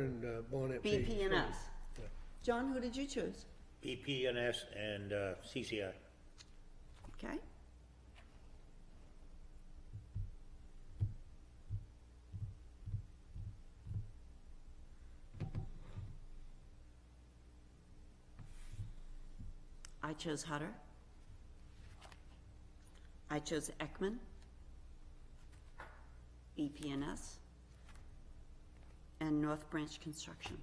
and uh, Bonnet Beach. BP and us. John, who did you choose? BPNS and uh, CCI. Okay. I chose Hutter. I chose Ekman. E BPNS. And North Branch Construction.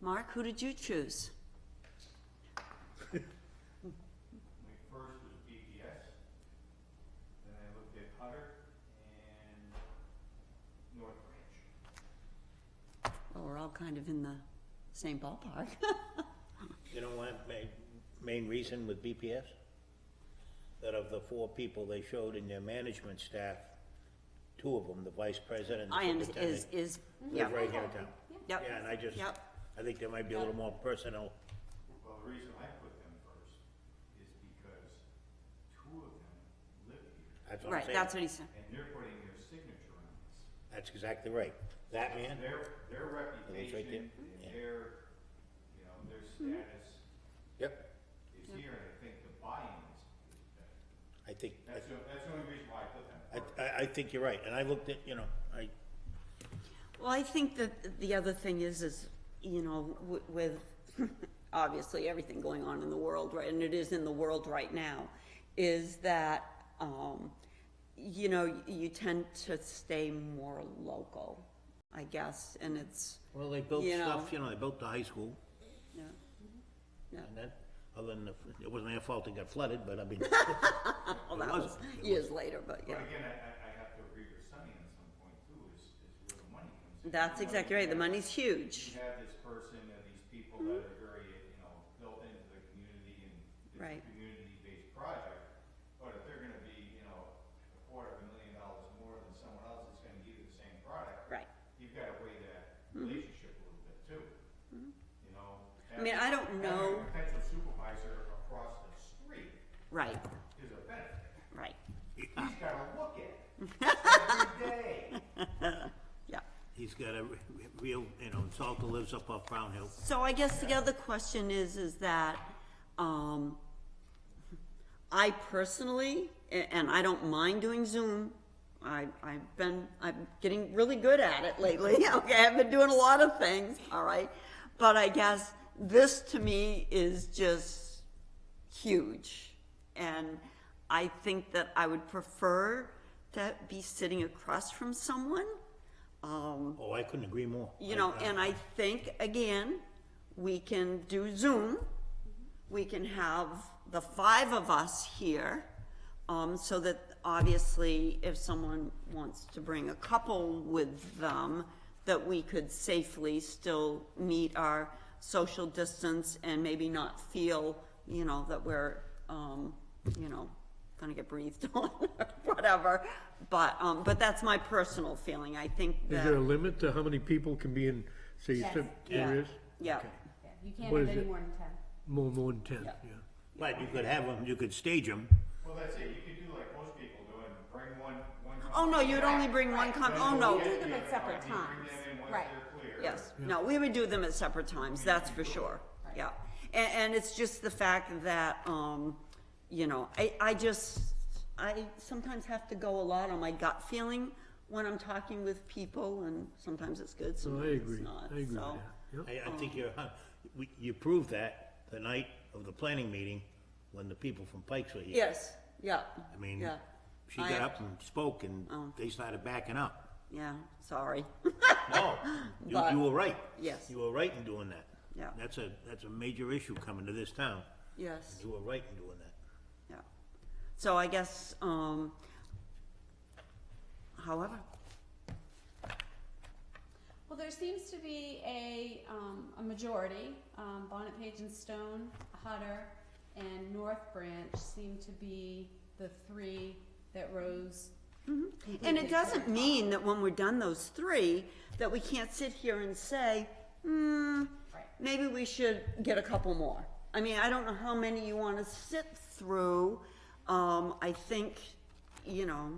Mark, who did you choose? My first was BPS, then I looked at Hutter and North Branch. Well, we're all kind of in the same ballpark. You know what, ma- main reason with BPS? That of the four people they showed in their management staff, two of them, the vice president and I the am, is, superintendent, is, yeah, live right here in town. Yep. Yeah, and I just, Yep. I think there might be a little more personal, Well, the reason I put them first is because two of them live here, that's what I'm right, saying. that's what he said. and they're putting their signature on this. That's exactly right. That man, Their, Mm-hmm. their there, reputation, and yeah. their, you know, their status yep, is here, and I think the buy-in is, is better. I think, That's, the- that's the only reason why I put them I, first. I, I think you're right, and I looked at, you know, I, Well, I think that the other thing is, is, you know, w- with obviously everything going on in the world, right, and it is in the world right now, is that, um, you know, you tend to stay more local, I guess, and it's, well, they built You know. stuff, you know, they built the high school, yeah. Yeah. and that, other than, the- it wasn't their fault it got flooded, but I mean, Well, that was wasn't. It years later, but yeah. But again, I, I, I have to agree with Sunny on some point too, is, is where the money comes in. That's You know, exactly right, the you have- money's huge. You have this person and these people that are very, you know, built into the community and Right. it's a community-based project, but if they're gonna be, you know, a quarter of a million dollars more than someone else that's gonna give you the same product. Right. You've gotta weigh that relationship a little bit too, you know? Mm-hmm. I mean, I having- don't know- Having a potential supervisor across the street Right, is a benefit. right, He's gotta look at it every day. yeah. He's got a re- real, you know, Salter lives up off Brown Hill. So I guess the other question is, is that, um, I personally, a- and I don't mind doing Zoom, I, I've been, I'm getting really good at it lately, okay, I've been doing a lot of things, all right? But I guess this to me is just huge. And I think that I would prefer to be sitting across from someone, um, Oh, I couldn't agree more. you know, and I think, again, we can do Zoom. We can have the five of us here, um, so that obviously if someone wants to bring a couple with them, that we could safely still meet our social distance and maybe not feel, you know, that we're, um, you know, gonna get breathed on or whatever. But, um, but that's my personal feeling. I think that. Is there a limit to how many people can be in, so you Yes. said there Yeah. is? Yeah, Yeah, You can't What have is any it? more than ten. More, more than ten, yeah. But you could have them, you could stage them. Well, that's it, you could do like most people do and bring one, one. Oh, no, company you'd back. only bring one com, oh, We do no, them at separate You bring times, them in once right. they're clear. yes, no, we would do them at separate times, that's for sure, yeah. And, and it's just the fact that, um, you know, I, I just, I sometimes have to go a lot on my gut feeling when I'm talking with people, and sometimes it's good, So I sometimes it's agree, not, I agree with so. that, yep. I, I think you're, huh, we- you proved that the night of the planning meeting when the people from Pikes were here. Yes, yeah, I mean, yeah, she I- Oh. got up and spoke and they started backing up. yeah, sorry, No, you, But- you were right. Yes. You were right in doing that. Yeah. That's a, that's a major issue coming to this town. yes. You were right in doing that. Yeah. So I guess, um, however, Well, there seems to be a, um, a majority, um, Bonnet Page and Stone, Hutter, and North Branch seem to be the three that rose. and it doesn't mean that when we're done those three, that we can't sit here and say, hmm, Right. maybe we should get a couple more. I mean, I don't know how many you wanna sit through. Um, I think, you know,